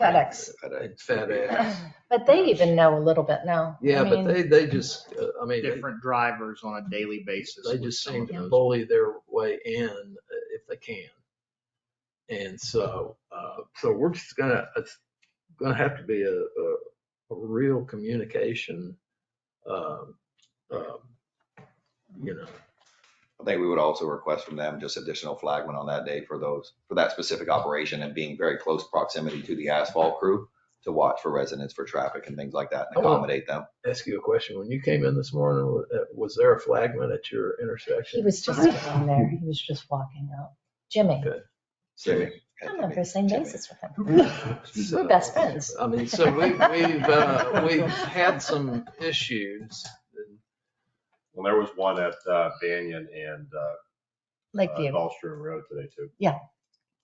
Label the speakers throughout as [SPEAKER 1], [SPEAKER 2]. [SPEAKER 1] FedEx.
[SPEAKER 2] FedEx.
[SPEAKER 1] But they even know a little bit now. I
[SPEAKER 2] Yeah, but
[SPEAKER 1] mean,
[SPEAKER 2] they, they just, uh, I mean, they-
[SPEAKER 3] different drivers on a daily basis.
[SPEAKER 2] they
[SPEAKER 3] with
[SPEAKER 2] just
[SPEAKER 3] some
[SPEAKER 2] seem
[SPEAKER 3] of
[SPEAKER 2] to
[SPEAKER 3] those.
[SPEAKER 2] bully their way in uh, if they can. And so, uh, so we're just gonna, it's gonna have to be a, a, a real communication, um, um, you know,
[SPEAKER 4] I think we would also request from them just additional flagmen on that day for those, for that specific operation and being very close proximity to the asphalt crew to watch for residents for traffic and things like that and
[SPEAKER 2] Oh, well.
[SPEAKER 4] accommodate them.
[SPEAKER 2] ask you a question. When you came in this morning, wa- uh, was there a flagman at your intersection?
[SPEAKER 1] He was just in there. He was just walking out. Jimmy.
[SPEAKER 2] Good.
[SPEAKER 4] Jimmy.
[SPEAKER 1] I'm on the same
[SPEAKER 4] Jimmy.
[SPEAKER 1] basis with him. We're best friends.
[SPEAKER 2] I mean, so we, we've, uh, we've had some issues.
[SPEAKER 5] Well, there was one at uh, Banyan and uh, uh,
[SPEAKER 1] Lakeview,
[SPEAKER 5] Gulfstream Road today too.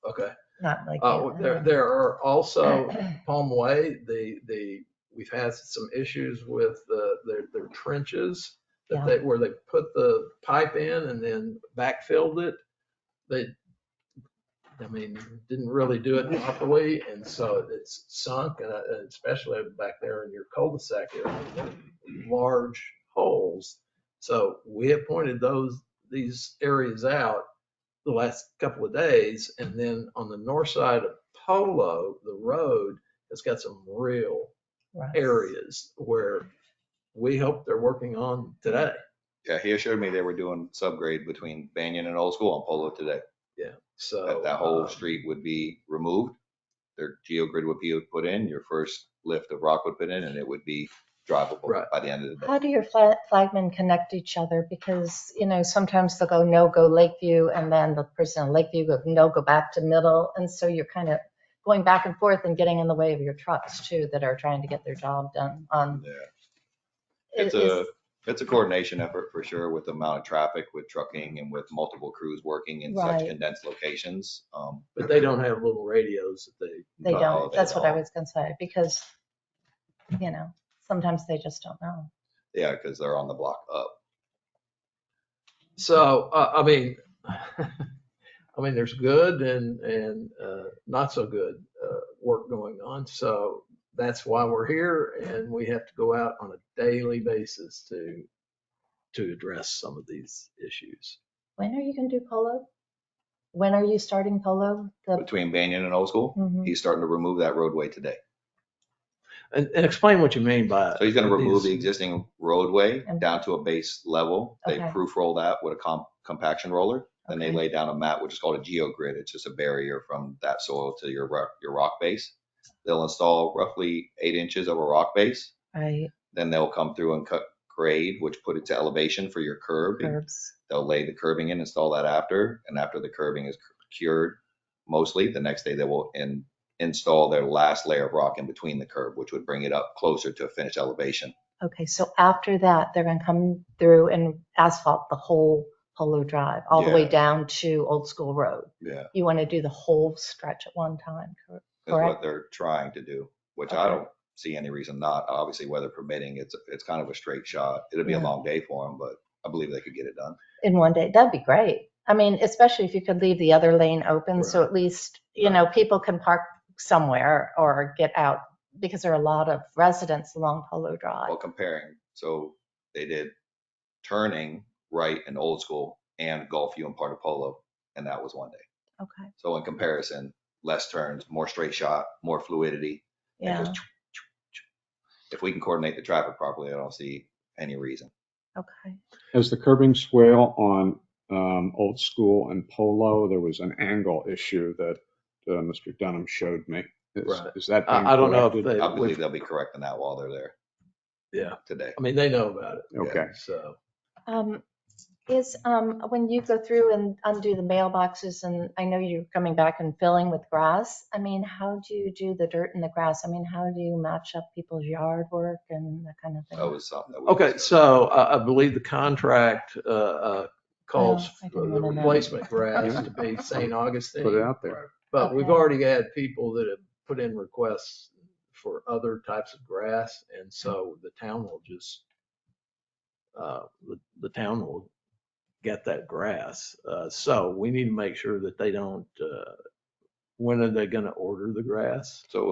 [SPEAKER 2] Okay.
[SPEAKER 1] not Lakeview.
[SPEAKER 2] Uh, there, there are also Palm Way, the, the, we've had some issues with the, their, their trenches
[SPEAKER 1] Yeah.
[SPEAKER 2] that they, where they put the pipe in and then backfilled it. They, I mean, didn't really do it properly and so it's sunk and uh, especially back there in your cul-de-sac, there are large holes. So we have pointed those, these areas out the last couple of days. And then on the north side of Polo, the road has got some real
[SPEAKER 1] Right.
[SPEAKER 2] areas where we hope they're working on today.
[SPEAKER 4] Yeah, he assured me they were doing subgrade between Banyan and Old School on Polo today.
[SPEAKER 2] So
[SPEAKER 4] That, that whole
[SPEAKER 2] uh,
[SPEAKER 4] street would be removed. Their geogrid would be put in, your first lift of rock would put in, and it would be drivable
[SPEAKER 2] Right.
[SPEAKER 4] by the end of the day.
[SPEAKER 1] How do your fla- flagmen connect each other? Because, you know, sometimes they'll go, no, go Lakeview, and then the person in Lakeview go, no, go back to middle. And so you're kind of going back and forth and getting in the way of your trucks too that are trying to get their job done on.
[SPEAKER 4] Yeah.
[SPEAKER 1] it
[SPEAKER 4] It's
[SPEAKER 1] is-
[SPEAKER 4] a, it's a coordination effort for sure with the amount of traffic, with trucking and with multiple crews working in such
[SPEAKER 1] Right.
[SPEAKER 4] condensed locations. Um,
[SPEAKER 2] but they don't have little radios that they,
[SPEAKER 1] They
[SPEAKER 4] not all
[SPEAKER 1] don't,
[SPEAKER 4] of it
[SPEAKER 1] that's
[SPEAKER 4] at
[SPEAKER 1] what I
[SPEAKER 4] all.
[SPEAKER 1] was gonna say, because, you know, sometimes they just don't know.
[SPEAKER 4] Yeah, because they're on the block up.
[SPEAKER 2] so, uh, I mean, I mean, there's good and, and, uh, not so good, uh, work going on. So that's why we're here and we have to go out on a daily basis to, to address some of these issues.
[SPEAKER 1] When are you gonna do polo? When are you starting polo? The-
[SPEAKER 4] Between Banyan and Old School,
[SPEAKER 1] Mhm.
[SPEAKER 4] he's starting to remove that roadway today.
[SPEAKER 2] And, and explain what you mean by.
[SPEAKER 4] So he's gonna remove the
[SPEAKER 2] these-
[SPEAKER 4] existing roadway
[SPEAKER 1] Okay.
[SPEAKER 4] down to a base level. They
[SPEAKER 1] Okay.
[SPEAKER 4] proof roll that with a comp, compaction roller. Then they
[SPEAKER 1] Okay.
[SPEAKER 4] lay down a mat, which is called a geogrid. It's just a barrier from that soil to your rock, your rock base. They'll install roughly eight inches of a rock base.
[SPEAKER 1] Right,
[SPEAKER 4] Then they'll come through and cut grade, which put it to elevation for your curb.
[SPEAKER 1] curbs.
[SPEAKER 4] They'll lay the curbing in, install that after, and after the curbing is cured, mostly, the next day they will in, install their last layer of rock in between the curb, which would bring it up closer to a finished elevation.
[SPEAKER 1] Okay, so after that, they're gonna come through and asphalt the whole Polo Drive, all the way
[SPEAKER 4] Yeah.
[SPEAKER 1] down to Old School Road.
[SPEAKER 4] Yeah.
[SPEAKER 1] You wanna do the whole stretch at one time, correct?
[SPEAKER 4] Is what
[SPEAKER 1] Correct.
[SPEAKER 4] they're trying to do, which I
[SPEAKER 1] Okay.
[SPEAKER 4] don't see any reason not. Obviously, weather permitting, it's, it's kind of a straight shot. It'll be a
[SPEAKER 1] Yeah.
[SPEAKER 4] long day for them, but I believe they could get it done.
[SPEAKER 1] in one day, that'd be great. I mean, especially if you could leave the other lane open, so at least, you know, people can park somewhere or get out, because there are a lot of residents along Polo Drive.
[SPEAKER 4] Well, comparing, so they did turning right in Old School and Gulfview and part of Polo, and that was one day.
[SPEAKER 1] Okay,
[SPEAKER 4] So in comparison, less turns, more straight shot, more fluidity. and
[SPEAKER 1] yeah,
[SPEAKER 4] just choo, choo, choo. If we can coordinate the traffic properly, I don't see any reason.
[SPEAKER 1] okay.
[SPEAKER 6] As the curbing swale on um, Old School and Polo, there was an angle issue that uh, Mr. Dunham showed me. Is-
[SPEAKER 2] Right.
[SPEAKER 6] Is that being
[SPEAKER 2] I, I don't know if
[SPEAKER 6] corrected?
[SPEAKER 2] they,
[SPEAKER 4] I believe
[SPEAKER 2] I
[SPEAKER 4] they'll be correcting that while they're there.
[SPEAKER 2] Yeah.
[SPEAKER 4] Today.
[SPEAKER 2] mean, they know about it.
[SPEAKER 6] Okay.
[SPEAKER 2] So,
[SPEAKER 1] Um, Is, um, when you go through and undo the mailboxes, and I know you're coming back and filling with grass, I mean, how do you do the dirt and the grass? I mean, how do you match up people's yard work and that kind of thing?
[SPEAKER 4] That was something that we.
[SPEAKER 2] okay,
[SPEAKER 4] discussed.
[SPEAKER 2] so uh, I, I believe the contract, uh, uh, calls
[SPEAKER 1] Oh, I
[SPEAKER 2] for
[SPEAKER 1] didn't
[SPEAKER 2] the
[SPEAKER 1] wanna know.
[SPEAKER 2] replacement grass to be St.
[SPEAKER 6] Put it
[SPEAKER 2] Augustine.
[SPEAKER 6] out there.
[SPEAKER 2] But we've
[SPEAKER 1] Okay.
[SPEAKER 2] already had people that have put in requests for other types of grass. And so the town will just, uh, the, the town will get that grass. Uh, so we need to make sure that they don't, uh, when are they going to order the grass?
[SPEAKER 4] So